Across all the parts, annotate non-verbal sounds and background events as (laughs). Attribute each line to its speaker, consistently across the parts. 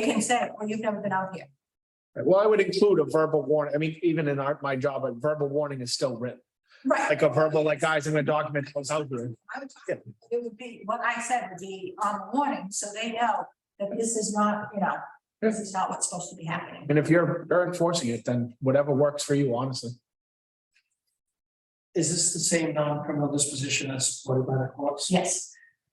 Speaker 1: can say, well, you've never been out here.
Speaker 2: Well, I would include a verbal warning. I mean, even in our, my job, a verbal warning is still written,
Speaker 1: Right.
Speaker 2: like a verbal, like guys, I'm gonna document what's out there.
Speaker 1: I would- It would be, what I said would be on the warning, so they know that this is not, you know, this is not what's supposed to be happening.
Speaker 2: And if you're you're enforcing it, then whatever works for you, honestly.
Speaker 3: Is this the same non-criminal disposition as supported by the courts?
Speaker 1: Yes,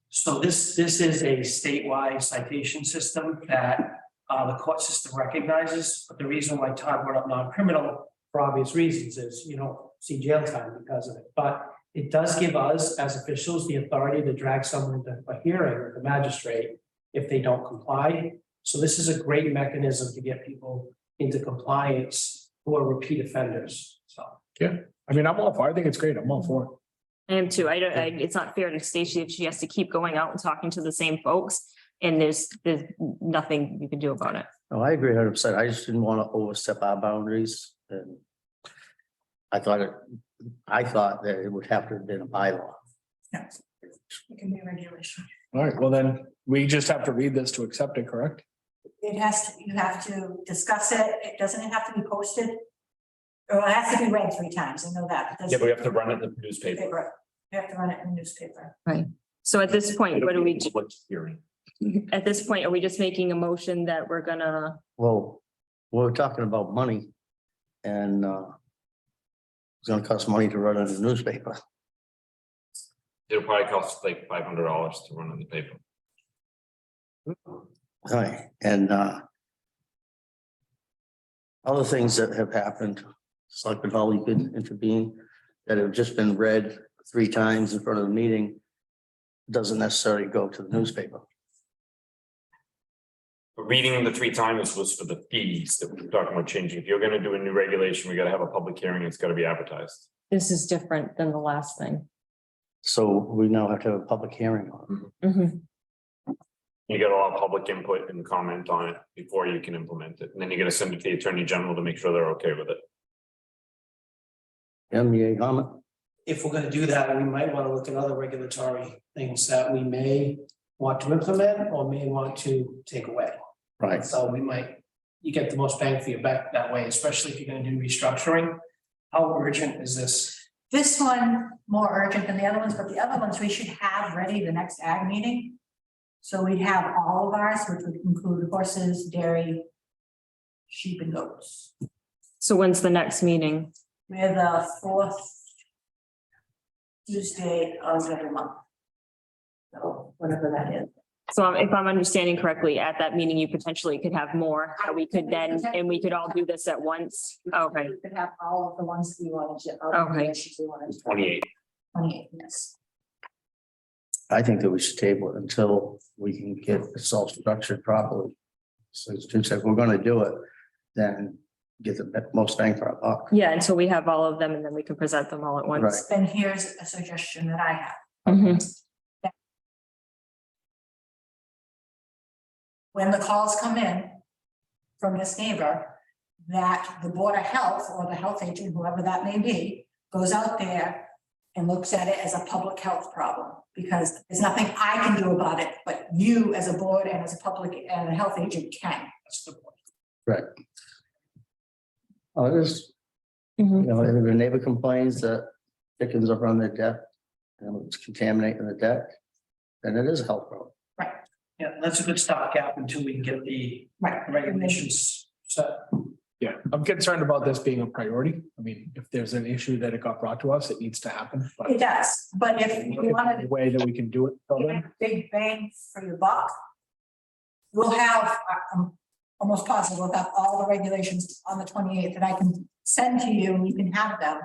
Speaker 3: So this, this is a statewide citation system that uh, the court system recognizes. But the reason why Todd brought up non-criminal, for obvious reasons, is you don't see jail time because of it. But it does give us, as officials, the authority to drag someone to a hearing with the magistrate if they don't comply. So this is a great mechanism to get people into compliance who are repeat offenders, so.
Speaker 2: I mean, I'm all for, it. I think it's great. I'm all for it.
Speaker 4: I am too. I don't, I, it's not fair to Stacy if she has to keep going out and talking to the same folks and there's, there's nothing you can do about it.
Speaker 5: No, Oh, I agree hundred percent. I just didn't want to overstep our boundaries and I thought it, I thought that it would have to have been a bylaw.
Speaker 1: it can be a regulation.
Speaker 2: All right, well then, we just have to read this to accept it, correct?
Speaker 1: It has to, you have to discuss it, it doesn't have to be posted. Or it has to be read three times, I know that.
Speaker 6: Yeah, but we have to run it in the newspaper.
Speaker 1: Paper, you have to run it in the newspaper.
Speaker 4: So at this point, what do we,
Speaker 6: It'll be a public Hearing.
Speaker 4: do? (laughs) at this point, are we just making a motion that we're gonna,
Speaker 5: Well, we're talking about money and uh it's gonna cost money to run a newspaper. (laughs)
Speaker 6: It'll probably cost like five hundred dollars to run in the paper.
Speaker 5: Right, and uh other things that have happened, Selectman Holly could intervene, that have just been read three times in front of the meeting, doesn't necessarily go to the newspaper.
Speaker 6: Reading the three times was for the fees that we were talking about changing. If you're gonna do a new regulation, we gotta have a public hearing. It's gotta be advertised.
Speaker 4: this is different than the last thing?
Speaker 5: So we now have to have a public hearing on it.
Speaker 4: Mhm.
Speaker 6: You gotta allow public input and comment on it before you can implement it. And then you gotta send it to the attorney general to make sure they're okay with it.
Speaker 5: MEA E comment?
Speaker 3: if we're gonna do that, we might wanna look at other regulatory things that we may want to implement or may want to take away.
Speaker 5: Right.
Speaker 3: So we might, you get the most bang for your buck that way, especially if you're gonna do restructuring. How urgent is this?
Speaker 1: This one more urgent than the other ones, but the other ones we should have ready the next ag meeting. So we have all of ours, which would include horses, dairy, sheep and goats.
Speaker 4: So when's the next meeting?
Speaker 1: We're the fourth Tuesday of every month. So whatever that is.
Speaker 4: So um, if I'm understanding correctly, at that meeting, you potentially could have more, that we could then, and we could all do this at once. Okay,
Speaker 1: We could have all of the ones we wanted to. all of the
Speaker 4: Okay.
Speaker 1: issues we wanted to-
Speaker 6: Twenty-eight.
Speaker 1: Twenty-eight, yes.
Speaker 5: I think that we should table it until we can get this all structured properly. So as Jim said, if we're gonna do it, then get the be- most bang for our buck.
Speaker 4: yeah, until we have all of them and then we can present them all at once.
Speaker 1: Then here's a suggestion that I have.
Speaker 4: Mhm.
Speaker 1: When the calls come in from this neighbor, that the Board of Health or the health agent, whoever that may be, goes out there and looks at it as a public health problem, because there's nothing I can do about it, but you as a board and as a public and a health agent can.
Speaker 3: That's the point.
Speaker 5: Oh, there's,
Speaker 4: Mhm.
Speaker 5: you know, if a neighbor complains that chickens are on their deck and it's contaminating the deck, then it is a health problem.
Speaker 3: Yeah, that's a good stopgap until we can get the
Speaker 1: Right.
Speaker 3: regulations set.
Speaker 2: Yeah, I'm concerned about this being a priority. I mean, if there's an issue that it got brought to us, it needs to happen. but
Speaker 1: It does, but if
Speaker 2: if
Speaker 1: you
Speaker 2: there's
Speaker 1: wanted
Speaker 2: a Way that we can do it. till
Speaker 1: give
Speaker 2: then.
Speaker 1: it a big bang for your buck. We'll have, I'm almost positive, we'll have all the regulations on the twenty eighth that I can send to you and you can have them.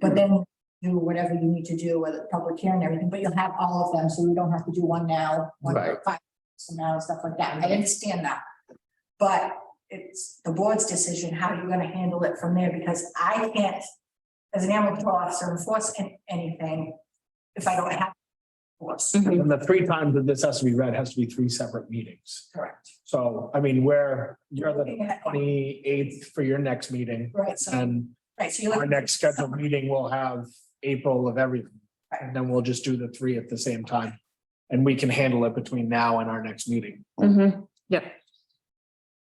Speaker 1: But then do whatever you need to do, whether public hearing and everything, but you'll have all of them, so you don't have to do one now, one
Speaker 5: Right.
Speaker 1: five, so now, stuff like that. I understand that. But it's the board's decision, how you're gonna handle it from there, because I can't, as an animal control officer, enforce an- anything if I don't have. Force.
Speaker 4: Mhm.
Speaker 2: And the three times that this has to be read has to be three separate meetings.
Speaker 1: Correct.
Speaker 2: So, I mean, where you're the
Speaker 1: Yeah,
Speaker 2: twenty eighth for your next meeting
Speaker 1: Right, so,
Speaker 2: and
Speaker 1: right, so you're.
Speaker 2: our
Speaker 1: looking-
Speaker 2: next scheduled meeting will have April of everything. And then we'll just do the three at the same time. And we can handle it between now and our next meeting.
Speaker 4: Mhm. Yep,